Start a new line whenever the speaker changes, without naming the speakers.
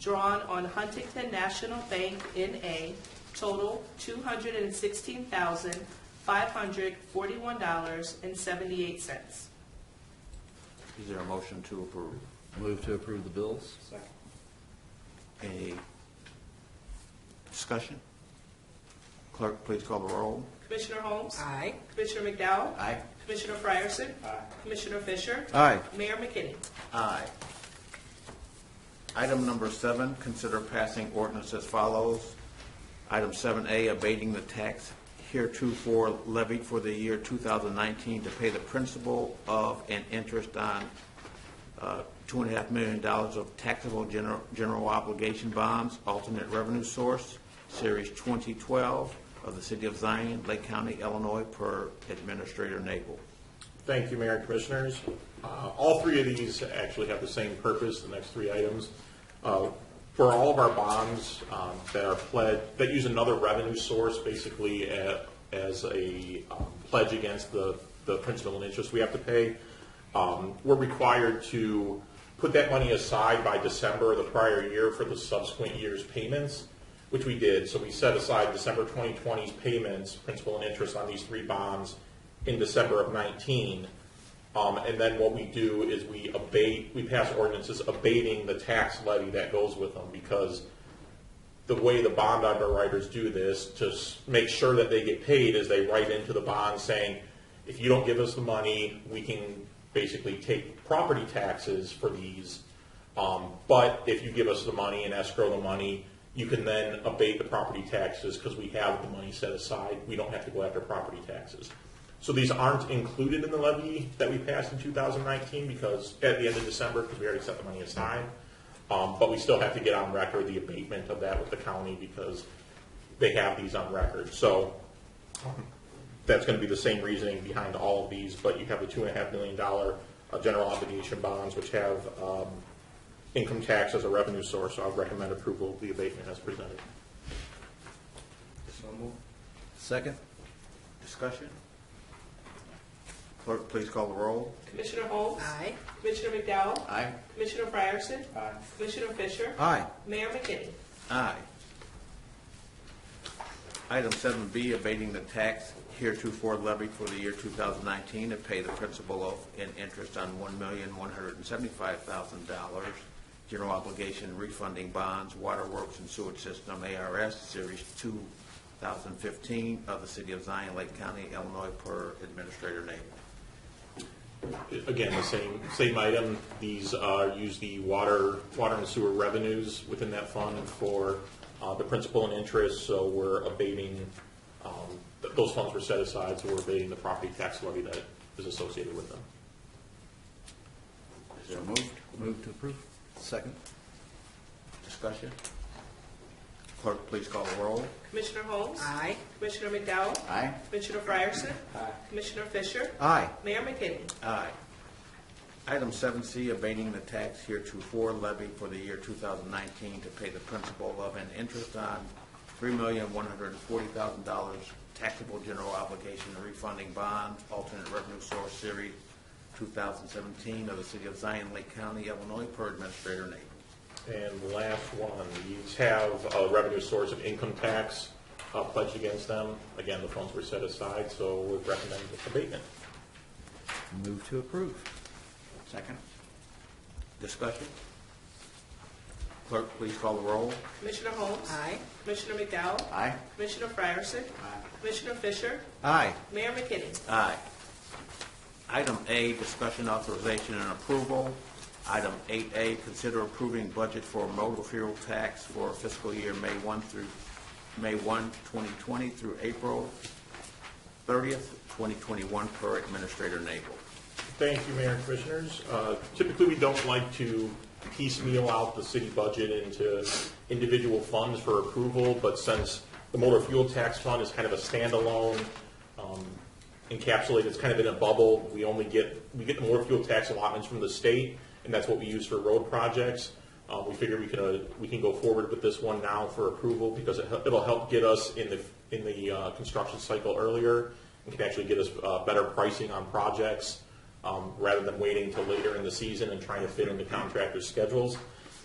drawn on Huntington National Bank N.A. total $216,541.78.
Is there a motion to approve?
Move to approve the bills?
Any discussion? Clerk, please call the roll.
Commissioner Holmes?
Aye.
Commissioner McDowell?
Aye.
Commissioner Fryerson? Commissioner Fisher?
Aye.
Mayor McKinney?
Aye. Item number seven, consider passing ordinance as follows. Item seven A, abating the tax heretofore levied for the year 2019 to pay the principal of and interest on uh, two and a half million dollars of taxable gener- general obligation bonds, alternate revenue source, Series 2012 of the City of Zion, Lake County, Illinois, per Administrator Nabel.
Thank you, Mayor and Commissioners. Uh, All three of these actually have the same purpose, the next three items. Uh, For all of our bonds um, that are pledged, that use another revenue source, basically a- as a um, pledge against the the principal and interest we have to pay, um, we're required to put that money aside by December of the prior year for the subsequent year's payments, which we did. So we set aside December 2020's payments, principal and interest on these three bonds in December of 19. Um, And then what we do is we abate, we pass ordinances abating the tax levy that goes with them because the way the bond underwriters do this to s- make sure that they get paid is they write into the bond saying, if you don't give us the money, we can basically take property taxes for these. Um, but if you give us the money and escrow the money, you can then abate the property taxes because we have the money set aside. We don't have to go after property taxes. So these aren't included in the levy that we passed in 2019 because, at the end of December, because we already set the money aside. Um, But we still have to get on record the abatement of that with the county because they have these on record. So um, that's going to be the same reasoning behind all of these, but you have the two and a half million dollar uh, general obligation bonds, which have um, income tax as a revenue source, so I would recommend approval of the abatement as presented.
Second?
Discussion? Clerk, please call the roll.
Commissioner Holmes?
Aye.
Commissioner McDowell?
Aye.
Commissioner Fryerson? Commissioner Fisher?
Aye.
Mayor McKinney?
Aye. Item seven B, abating the tax heretofore levied for the year two thousand nineteen to pay the principal of and interest on one million, one hundred and seventy-five thousand dollars general obligation refunding bonds, waterworks and sewage system, ARS, series two thousand fifteen of the city of Zion, Lake County, Illinois, per Administrator Nabel.
Again, the same, same item. These uh, use the water, water and sewer revenues within that fund for uh, the principal and interest, so we're abating, um, th- those funds were set aside, so we're abating the property tax levy that is associated with them.
Is there a move?
Move to approve? Second?
Discussion? Clerk, please call the roll.
Commissioner Holmes?
Aye.
Commissioner McDowell?
Aye.
Commissioner Fryerson? Commissioner Fisher?
Aye.
Mayor McKinney?
Aye. Item seven C, abating the tax heretofore levied for the year two thousand nineteen to pay the principal of and interest on three million, one hundred and forty thousand dollars taxable general obligation refunding bond, alternate revenue source series two thousand seventeen of the city of Zion Lake County, Illinois, per Administrator Nabel.
And last one, these have a revenue source of income tax uh, pledged against them. Again, the funds were set aside, so we recommend abatement.
Move to approve?
Second. Discussion? Clerk, please call the roll.
Commissioner Holmes?
Aye.
Commissioner McDowell?
Aye.
Commissioner Fryerson? Commissioner Fisher?
Aye.
Mayor McKinney?
Aye. Item A, discussion authorization and approval. Item 8A, consider approving budget for motor fuel tax for fiscal year May 1 through, May 1, 2020 through April 30th, 2021, per Administrator Nabel.
Thank you, Mayor and Commissioners. Uh, Typically, we don't like to piecemeal out the city budget into individual funds for approval, but since the motor fuel tax fund is kind of a standalone, um, encapsulated, it's kind of in a bubble, we only get, we get the motor fuel tax allotments from the state, and that's what we use for road projects. Uh, We figure we can, uh, we can go forward with this one now for approval because it hel- it'll help get us in the, in the uh, construction cycle earlier and can actually get us uh, better pricing on projects um, rather than waiting till later in the season and trying to fit into contractors' schedules.